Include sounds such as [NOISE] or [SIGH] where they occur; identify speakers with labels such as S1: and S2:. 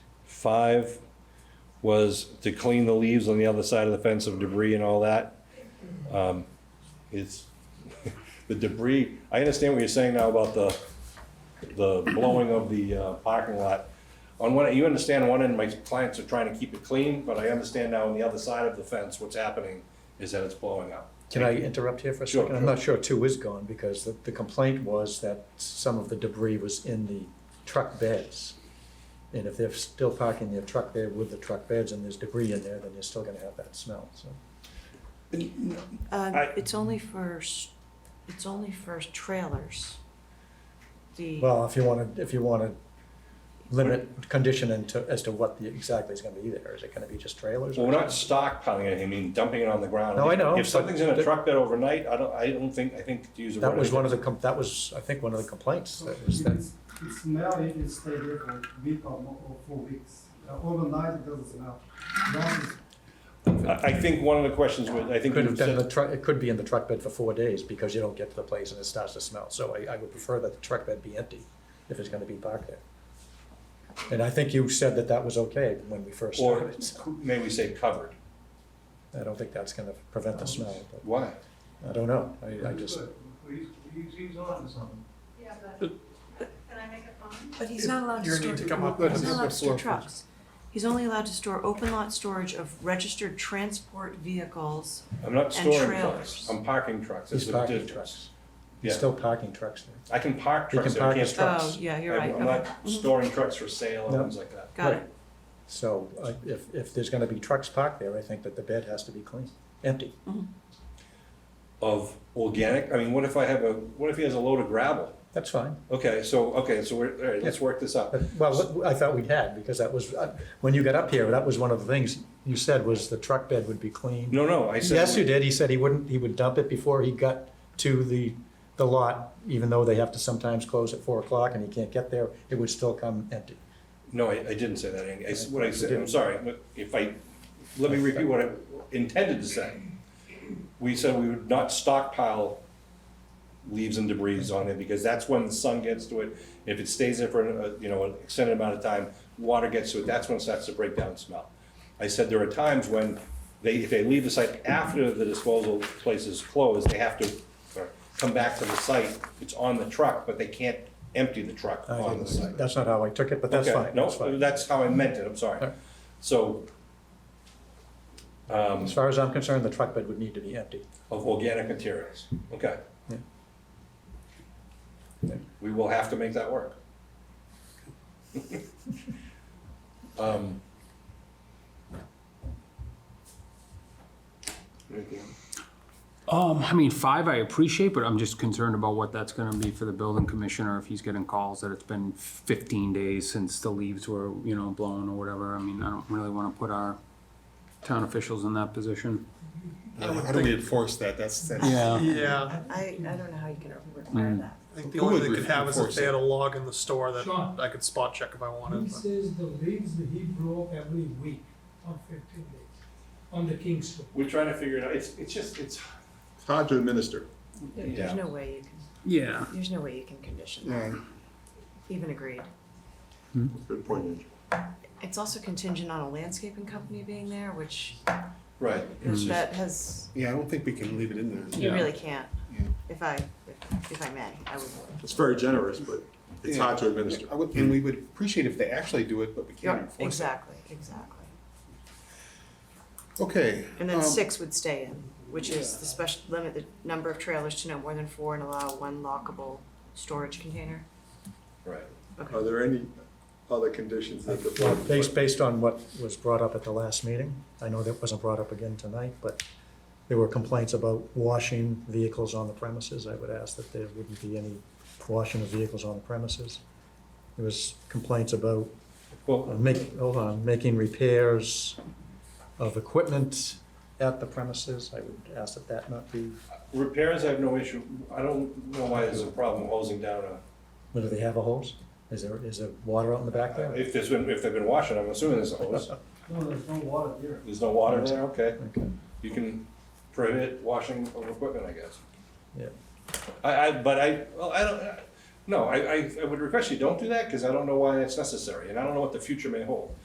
S1: five was to clean the leaves on the other side of the fence of debris and all that. Um, It's, [LAUGHS] the debris, I understand what you're saying now about the, the blowing of the uh, parking lot. On one, you understand on one end, my clients are trying to keep it clean, but I understand now on the other side of the fence, what's happening is that it's blowing up.
S2: Can I interrupt here for a
S1: Sure,
S2: second? I'm not sure two is gone, because the, the complaint was that some of the debris was in the truck beds. And if they're still parking their truck there with the truck beds and there's debris in there, then you're still gonna have that smell, so.
S3: Um,
S1: I-
S3: it's only for, s- it's only for trailers. The,
S2: Well, if you wanna, if you wanna limit condition into, as to what the, exactly is gonna be there, is it gonna be just trailers?
S1: Well,
S2: or-
S1: we're not stockpiling it, I mean dumping it on the ground.
S2: No, I know,
S1: If something's in a
S2: but-
S1: truck bed overnight, I don't, I don't think, I think to use the word.
S2: That was one of the, com- that was, I think, one of the complaints, that was that,
S4: It's- It smell, it can stay there for a week or more, or four weeks. Uh, Overnight, it doesn't smell. That is
S1: I, I think one of the questions was, I think.
S2: could have
S1: you
S2: been in
S1: said-
S2: the truck, it could be in the truck bed for four days, because you don't get to the place and it starts to smell, so I, I would prefer that the truck bed be empty, if it's gonna be parked there. And I think you said that that was okay when we first
S1: Or
S2: started,
S1: may we say covered?
S2: I don't think that's gonna prevent the smell, but,
S1: Why?
S2: I don't know, I, I just,
S5: He's, he's, he's on to something.
S6: Yeah, but, can I make a comment?
S3: but he's not allowed to
S5: You're
S3: store,
S5: need to
S3: he's
S5: come
S3: not
S5: up with a
S3: allowed to store
S5: floor plan.
S3: trucks. He's only allowed to store open lot storage of registered transport vehicles.
S1: I'm not
S3: And
S1: storing
S3: trailers.
S1: trucks, I'm parking trucks.
S2: he's
S1: There's a
S2: parking
S1: difference.
S2: trucks, he's
S1: Yeah.
S2: still parking trucks there.
S1: I can park
S2: He
S1: trucks,
S2: can
S1: but I
S2: park his
S1: can't.
S2: trucks.
S3: Oh, yeah, you're right,
S1: I'm
S3: okay,
S1: not storing trucks for sale and
S2: No.
S1: things like that.
S3: got
S2: Right.
S3: it.
S2: So I- if, if there's gonna be trucks parked there, I think that the bed has to be clean, empty.
S3: Mm-hmm.
S1: Of organic, I mean, what if I have a, what if he has a load of gravel?
S2: That's fine.
S1: Okay, so, okay, so we're, all right, let's work this out.
S2: But- Uh, Well, what- I thought we had, because that was, uh, when you got up here, that was one of the things you said was the truck bed would be clean.
S1: No, no, I said.
S2: Yes, you did. He said he wouldn't, he would dump it before he got to the, the lot, even though they have to sometimes close at four o'clock and he can't get there, it would still come empty.
S1: No, I, I didn't say that, Andy. I s what I said,
S2: You
S1: I'm
S2: did.
S1: sorry, but if I, let me repeat what I intended to say. We said we would not stockpile leaves and debris on it, because that's when the sun gets to it. If it stays there for, uh, you know, an extended amount of time, water gets to it, that's when it starts to break down and smell. I said there are times when they, if they leave the site after the disposal place is closed, they have to uh, come back to the site. It's on the truck, but they can't empty the truck
S2: I
S1: on the
S2: didn't-
S1: site.
S2: That's not how I took it, but that's
S1: Okay,
S2: fine. That's
S1: No,
S2: fine.
S1: that's how I meant it, I'm
S2: All
S1: sorry.
S2: right.
S1: So, um,
S2: As far as I'm concerned, the truck bed would need to be empty.
S1: of organic materials, okay.
S2: Yeah.
S1: We will have to make that work. Um,
S7: Um, I mean, five I appreciate, but I'm just concerned about what that's gonna be for the building commissioner, if he's getting calls that it's been fifteen days since the leaves were, you know, blown or whatever. I mean, I don't really wanna put our town officials in that position.
S8: How do we enforce that? That's, that's.
S7: Yeah.
S9: Yeah,
S6: I, I don't know how you can require that.
S9: I think the
S8: Who
S9: only
S8: would
S9: thing they could have is if
S8: enforce
S9: they
S8: it?
S9: had a log in the store that
S4: Sure.
S9: I could spot check if I wanted.
S4: He
S9: but-
S4: says the leaves he broke every week on fifteen days, on the King's Road.
S1: We're trying to figure it out, it's, it's just, it's,
S8: It's hard to administer.
S6: There- There's
S1: Yeah.
S6: no way you can,
S7: Yeah.
S6: there's no way you can condition that,
S8: Yeah,
S6: even agreed.
S8: good point.
S6: It's also contingent on a landscaping company being there, which
S1: right. it's just-
S6: that has,
S8: Yeah, I don't think we can leave it in there.
S6: you
S7: Yeah.
S6: really can't.
S8: Yeah.
S6: If I, if- if I may, I would.
S8: It's very generous, but it's hard to administer.
S5: I would, and we would appreciate if they actually do it, but we
S6: Yeah,
S5: can't enforce it.
S6: Exactly, exactly.
S8: Okay.
S6: And then
S8: um,
S6: six would stay in, which is the special, limit the number of trailers to no more than four and allow one lockable storage container.
S1: Right.
S8: Are there any other conditions that the board?
S2: Based, based on what was brought up at the last meeting, I know that wasn't brought up again tonight, but there were complaints about washing vehicles on the premises. I would ask that there wouldn't be any washing of vehicles on the premises. There was complaints about
S1: Well,
S2: uh, make, hold on, making repairs of equipment at the premises. I would ask that that not be,
S1: repairs, I have no issue, I don't know why there's a problem hosing down a
S2: whether they have a hose? Is there, is there water out in the back there?
S1: If there's been, if they've been washing, I'm assuming there's a hose.
S4: No, there's no water there.
S1: There's no water there, okay.
S2: Okay.
S1: You can prohibit washing of equipment, I guess.
S2: Yeah.
S1: I, I, but I, well, I don't, no, I, I, I would request you don't do that, because I don't know why that's necessary, and I don't know what the future may hold.